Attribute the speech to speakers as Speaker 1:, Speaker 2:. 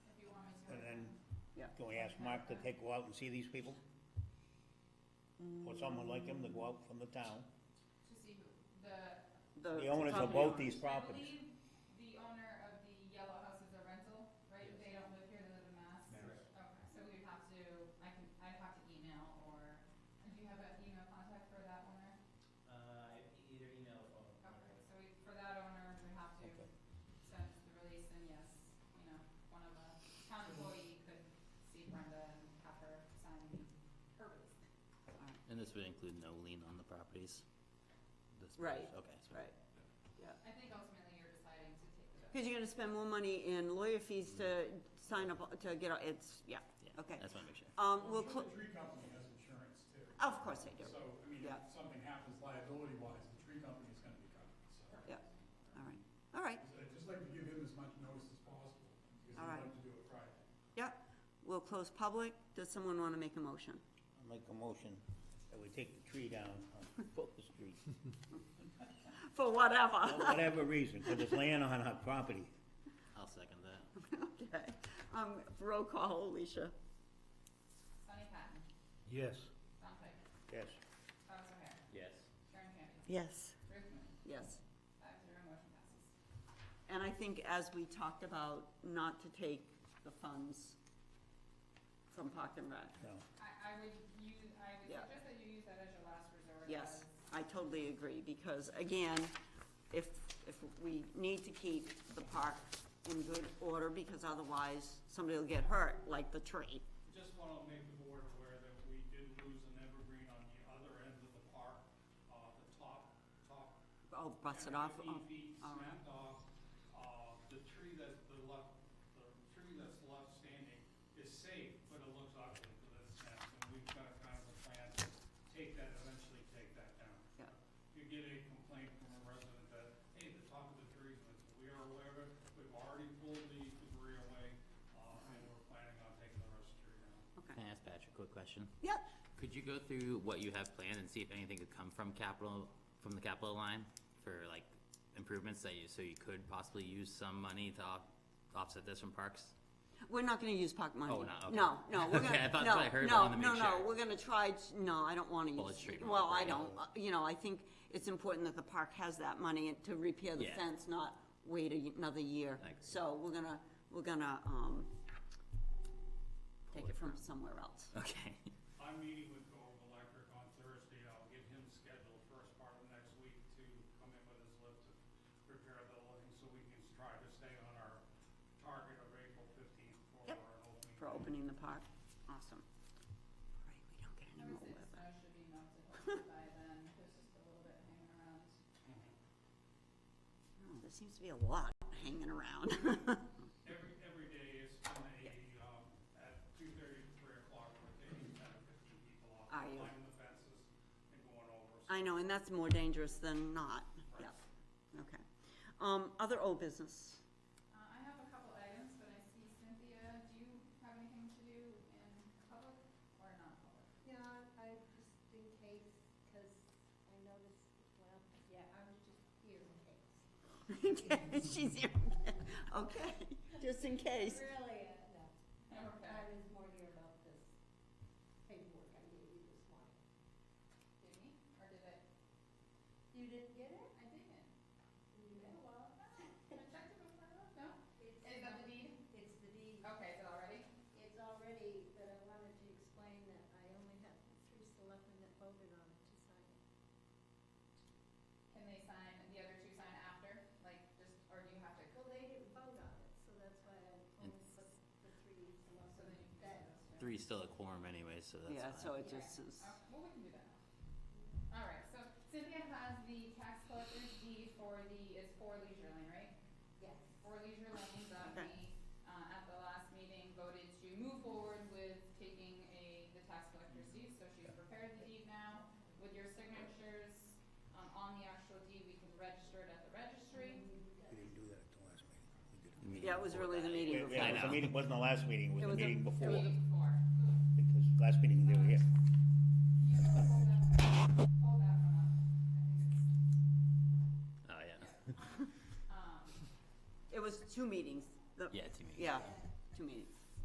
Speaker 1: Can we ask Mark to take, go out and see these people? Or someone like him to go out from the town?
Speaker 2: To see who, the.
Speaker 1: The owners of both these properties.
Speaker 2: I believe the owner of the yellow house is a rental, right? They don't live here, they live in Mass. Okay, so we'd have to, I can, I'd have to email or, do you have an email contact for that owner?
Speaker 3: Uh, e- either email or phone.
Speaker 2: Okay, so we, for that owner, we have to
Speaker 1: Okay.
Speaker 2: send the release and yes, you know, one of a town employee could see Brenda and have her sign her release.
Speaker 4: And this would include no lien on the properties? This
Speaker 5: Right,
Speaker 4: property- Okay. so-
Speaker 5: Right,
Speaker 2: I think ultimately you're deciding to take the.
Speaker 5: because you're gonna spend more money in lawyer fees to sign up, to get, a- it's, yeah,
Speaker 4: Yeah,
Speaker 5: okay.
Speaker 4: That's my picture.
Speaker 5: Um, we'll,
Speaker 6: Well,
Speaker 5: cl-
Speaker 6: The tree company has insurance too.
Speaker 5: of course they do,
Speaker 6: So, I mean,
Speaker 5: Yeah.
Speaker 6: if something happens liability wise, the tree company is gonna be covered, so.
Speaker 5: yeah, all right, all right,
Speaker 6: I'd just like to give him as much notice as possible, because
Speaker 5: All
Speaker 6: he'd
Speaker 5: right.
Speaker 6: like to do it Friday.
Speaker 5: yeah. We'll close public, does someone wanna make a motion?
Speaker 1: I make a motion that we take the tree down on Fulton Street,
Speaker 5: For whatever,
Speaker 1: for whatever reason, because it's land on our property.
Speaker 4: I'll second that.
Speaker 5: okay, um, roll call, Alicia,
Speaker 2: Sunny Patton,
Speaker 1: Yes.
Speaker 2: Tom Pike,
Speaker 1: Yes.
Speaker 2: Thomas O'Hare,
Speaker 4: Yes.
Speaker 2: Sharon Campion,
Speaker 5: yes,
Speaker 2: Ruth Moon,
Speaker 5: yes.
Speaker 2: five zero motion passes.
Speaker 5: And I think as we talked about, not to take the funds from Park and Rec,
Speaker 1: No.
Speaker 2: I, I would use, I would
Speaker 5: Yeah.
Speaker 2: suggest that you use that as your last resort.
Speaker 5: Yes,
Speaker 2: as-
Speaker 5: I totally agree, because again, if, if we need to keep the park in good order, because otherwise somebody will get hurt, like the tree.
Speaker 7: Just want to make the board aware that we did lose an evergreen on the other end of the park, uh, the top, top.
Speaker 5: Oh, bust it off, oh,
Speaker 7: evergreen Eight feet
Speaker 5: all right.
Speaker 7: snapped off. Uh, the tree that, the left, the tree that's left standing is safe, but it looks ugly because it's snapped. And we've got kind of a plan to take that, eventually take that down.
Speaker 5: Yeah.
Speaker 7: You get a complaint from a resident that, hey, the top of the tree, is missing." we are aware of it, we've already pulled the debris away, uh, and we're planning on taking the rest of the tree down.
Speaker 4: Can I ask Patrick a quick question?
Speaker 5: Yep,
Speaker 4: Could you go through what you have planned and see if anything could come from capital, from the capital line for like improvements that you, so you could possibly use some money to off- offset this from parks?
Speaker 5: we're not gonna use park money.
Speaker 4: Oh, we're not, okay.
Speaker 5: No, no, we're
Speaker 4: Okay, I
Speaker 5: gonna,
Speaker 4: thought that's what I
Speaker 5: no,
Speaker 4: heard, but I
Speaker 5: no,
Speaker 4: wanted to
Speaker 5: no,
Speaker 4: make
Speaker 5: no,
Speaker 4: sure.
Speaker 5: we're gonna try, t- no, I don't wanna use.
Speaker 4: Well, it's straight
Speaker 5: Well, I
Speaker 4: money,
Speaker 5: don't,
Speaker 4: right?
Speaker 5: uh, you know, I think it's important that the park has that money to repair the
Speaker 4: Yeah.
Speaker 5: fence, not wait a y- another year.
Speaker 4: I agree.
Speaker 5: So we're gonna, we're gonna, um, take it from somewhere else.
Speaker 4: Okay.
Speaker 7: I'm meeting with Gove Electric on Thursday, I'll get him scheduled first part of next week to come in with his lift to prepare the lighting, so we can try to stay on our target of April fifteenth for
Speaker 5: Yep.
Speaker 7: our opening.
Speaker 5: for opening the park. Awesome. Right, we don't get
Speaker 2: I
Speaker 5: any
Speaker 2: would say
Speaker 5: more
Speaker 2: the
Speaker 5: weather.
Speaker 2: snow should be melted hopefully by then, there's just a little bit hanging around.
Speaker 5: Oh, there seems to be a lot hanging around.
Speaker 7: Every, every day is from a, um, at two thirty to three o'clock, we're taking ten or fifteen people off,
Speaker 5: Are you?
Speaker 7: climbing the fences and going over. so-
Speaker 5: I know, and that's more dangerous than not.
Speaker 7: Right.
Speaker 5: Yeah, okay. Um, other old business?
Speaker 2: Uh, I have a couple items, but I see Cynthia, do you have anything to do in public or non-public?
Speaker 8: Yeah, I just in case, because I noticed, well, yeah, I was just here in case.
Speaker 5: She's here. Okay, just in case.
Speaker 8: Really, uh, no. I
Speaker 2: Okay,
Speaker 8: was more here about this paperwork I gave you this morning.
Speaker 2: did me, or did I,
Speaker 8: You didn't get it?
Speaker 2: I didn't, oh,
Speaker 8: You know,
Speaker 2: well, no, I checked it before I left, no?
Speaker 8: It's,
Speaker 2: Is that the deed?
Speaker 8: it's the deed.
Speaker 2: Okay, is it already?
Speaker 8: It's already, but I wanted to explain that I only have three selectmen that voted on it to sign it.
Speaker 2: Can they sign, the other two sign after, like, just, or do you have to,
Speaker 8: Well, they didn't vote on it, so that's why I only
Speaker 4: It's-
Speaker 8: put the three
Speaker 2: so then
Speaker 8: selectmen
Speaker 2: you can
Speaker 8: that
Speaker 2: sign those two?
Speaker 4: Three's still a quorum anyway, so that's fine.
Speaker 5: Yeah, so it
Speaker 2: Yeah.
Speaker 5: just is,
Speaker 2: Uh, Well, we can do that now. All right, so Cynthia has the tax collector's deed for the, it's for Leisure Lane, right?
Speaker 8: Yes.
Speaker 2: For Leisure Lane, that
Speaker 5: Okay.
Speaker 2: we, uh, at the last meeting voted to move forward with taking a, the tax collector's deed, so she's prepared the deed now. With your signatures, um, on the actual deed, we can register it at the registry.
Speaker 1: We didn't do that at the last meeting.
Speaker 4: The meeting
Speaker 5: yeah, it was
Speaker 4: before
Speaker 5: really the
Speaker 4: that.
Speaker 5: meeting
Speaker 1: Yeah, it
Speaker 5: before.
Speaker 1: was the
Speaker 4: know.
Speaker 1: meeting, wasn't the last meeting, it was
Speaker 5: It was
Speaker 1: the
Speaker 5: a-
Speaker 1: meeting
Speaker 5: it was
Speaker 1: before,
Speaker 5: a-
Speaker 2: Meeting four.
Speaker 1: because last meeting they were here.
Speaker 2: You can hold that, hold that one up. I think it's,
Speaker 4: Oh, yeah.
Speaker 2: um,
Speaker 5: It was two meetings. The-
Speaker 4: Yeah, two meetings.
Speaker 5: Yeah, two meetings.